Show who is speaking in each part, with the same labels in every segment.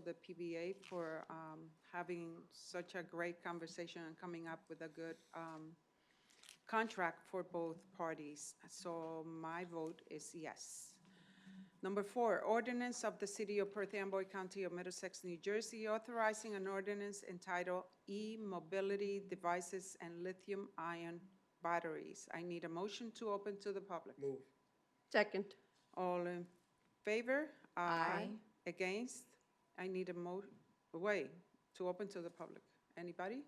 Speaker 1: the PBA for um, having such a great conversation and coming up with a good um, contract for both parties. So my vote is yes. Number four, ordinance of the City of Perth Amboy County of Middlesex, New Jersey, authorizing an ordinance entitled E-Mobility Devices and Lithium-Ion Batteries. I need a motion to open to the public.
Speaker 2: Move.
Speaker 3: Second.
Speaker 1: All in favor?
Speaker 3: Aye.
Speaker 1: Against? I need a mo, way to open to the public. Anybody?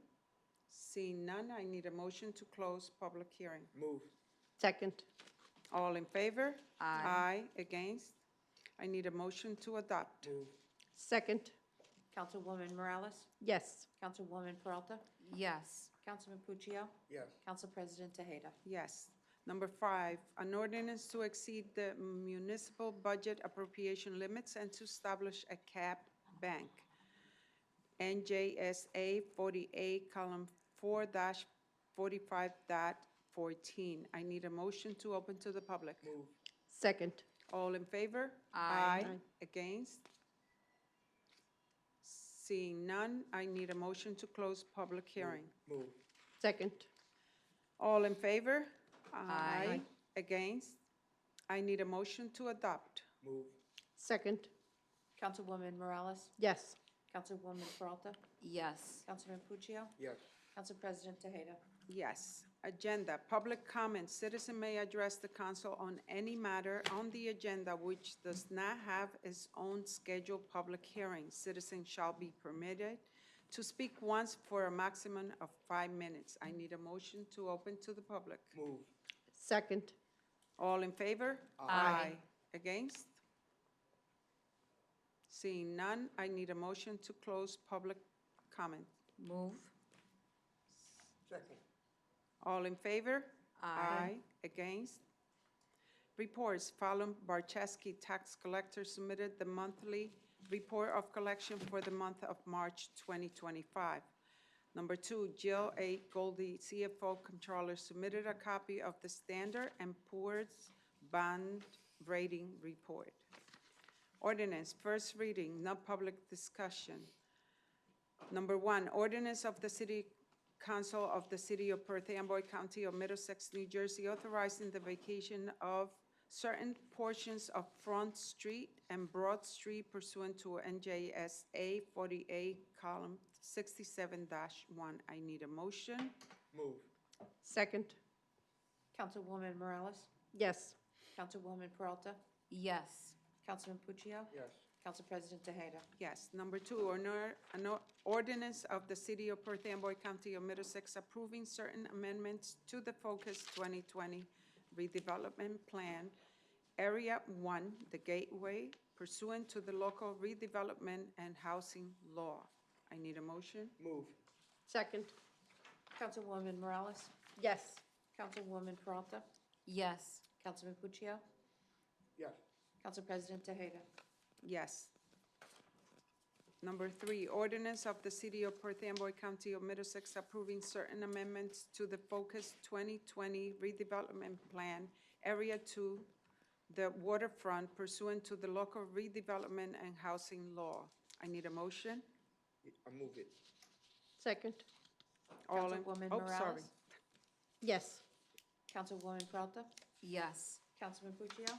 Speaker 1: Seeing none, I need a motion to close public hearing.
Speaker 2: Move.
Speaker 3: Second.
Speaker 1: All in favor?
Speaker 3: Aye.
Speaker 1: Aye, against? I need a motion to adopt.
Speaker 2: Move.
Speaker 3: Second.
Speaker 4: Councilwoman Morales?
Speaker 3: Yes.
Speaker 4: Councilwoman Peralta?
Speaker 5: yes,
Speaker 4: Councilman Puccio?
Speaker 2: Yes.
Speaker 4: Council President Tejeda?
Speaker 1: Yes. Number five, an ordinance to exceed the municipal budget appropriation limits and to establish a cap bank. NJSA 48, column 4 dash 45 dot 14. I need a motion to open to the public.
Speaker 2: Move.
Speaker 3: Second.
Speaker 1: All in favor?
Speaker 5: Aye.
Speaker 1: Against? Seeing none, I need a motion to close public hearing.
Speaker 2: Move.
Speaker 3: Second.
Speaker 1: All in favor?
Speaker 5: Aye.
Speaker 1: Against? I need a motion to adopt.
Speaker 2: Move.
Speaker 3: Second.
Speaker 4: Councilwoman Morales?
Speaker 3: Yes.
Speaker 4: Councilwoman Peralta?
Speaker 5: yes,
Speaker 4: Councilman Puccio?
Speaker 2: Yes.
Speaker 4: Council President Tejeda?
Speaker 1: Yes. Agenda, public comment. Citizen may address the council on any matter on the agenda which does not have its own scheduled public hearing. Citizen shall be permitted to speak once for a maximum of five minutes. I need a motion to open to the public.
Speaker 2: Move.
Speaker 3: Second.
Speaker 1: All in favor? Aye. Against? Seeing none, I need a motion to close public comment.
Speaker 5: move,
Speaker 2: Second.
Speaker 1: All in favor? Aye. Against? Reports, Fallon Barczewski, tax collector, submitted the monthly report of collection for the month of March 2025. Number two, Jill A. Goldie, CFO Controller, submitted a copy of the Standard and Poor's Bond Rating Report. Ordinance, first reading, no public discussion. Number one, ordinance of the City Council of the City of Perth Amboy County of Middlesex, New Jersey, authorizing the vacation of certain portions of Front Street and Broad Street pursuant to NJSA 48, column 67-1. I need a motion.
Speaker 2: Move.
Speaker 3: Second.
Speaker 4: Councilwoman Morales?
Speaker 3: Yes.
Speaker 4: Councilwoman Peralta?
Speaker 5: yes,
Speaker 4: Councilman Puccio?
Speaker 2: Yes.
Speaker 4: Council President Tejeda?
Speaker 1: Yes. Number two, an or- an or- ordinance of the City of Perth Amboy County of Middlesex approving certain amendments to the Focus 2020 redevelopment plan, Area 1, the Gateway, pursuant to the local redevelopment and housing law. I need a motion?
Speaker 2: Move.
Speaker 3: Second.
Speaker 4: Councilwoman Morales?
Speaker 3: Yes.
Speaker 4: Councilwoman Peralta?
Speaker 5: yes,
Speaker 4: Councilman Puccio?
Speaker 2: Yes.
Speaker 4: Council President Tejeda?
Speaker 1: Yes. Number three, ordinance of the City of Perth Amboy County of Middlesex approving certain amendments to the Focus 2020 redevelopment plan, Area 2, the waterfront pursuant to the local redevelopment and housing law. I need a motion.
Speaker 2: I move it.
Speaker 3: Second.
Speaker 1: All in-
Speaker 4: Councilwoman
Speaker 1: oh, sorry.
Speaker 4: Morales?
Speaker 3: Yes.
Speaker 4: Councilwoman Peralta?
Speaker 5: yes,
Speaker 4: Councilman Puccio?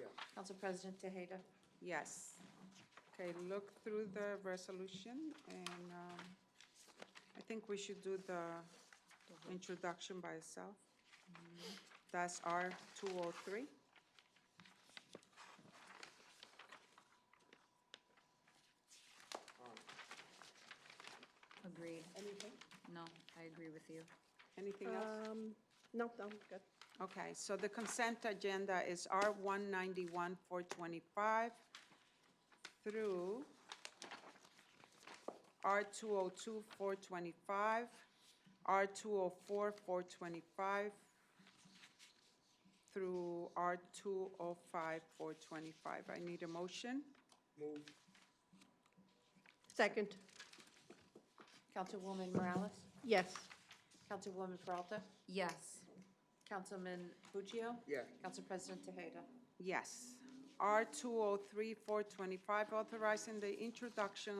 Speaker 2: Yes.
Speaker 4: Council President Tejeda?
Speaker 1: Yes. Okay, look through the resolution, and um, I think we should do the introduction by itself. That's R two oh three.
Speaker 5: agreed. Anything? No, I agree with you.
Speaker 1: Anything else?
Speaker 3: Um, no, I'm good.
Speaker 1: Okay, so the consent agenda is R one ninety-one, four twenty-five through R two oh two, four twenty-five, R two oh four, four twenty-five, through R two oh five, four twenty-five. I need a motion.
Speaker 2: Move.
Speaker 3: Second.
Speaker 4: Councilwoman Morales?
Speaker 3: Yes.
Speaker 4: Councilwoman Peralta?
Speaker 5: Yes,
Speaker 4: Councilman Puccio?
Speaker 2: Yes.
Speaker 4: Council President Tejeda?
Speaker 1: Yes. R two oh three four twenty-five, authorizing the introduction of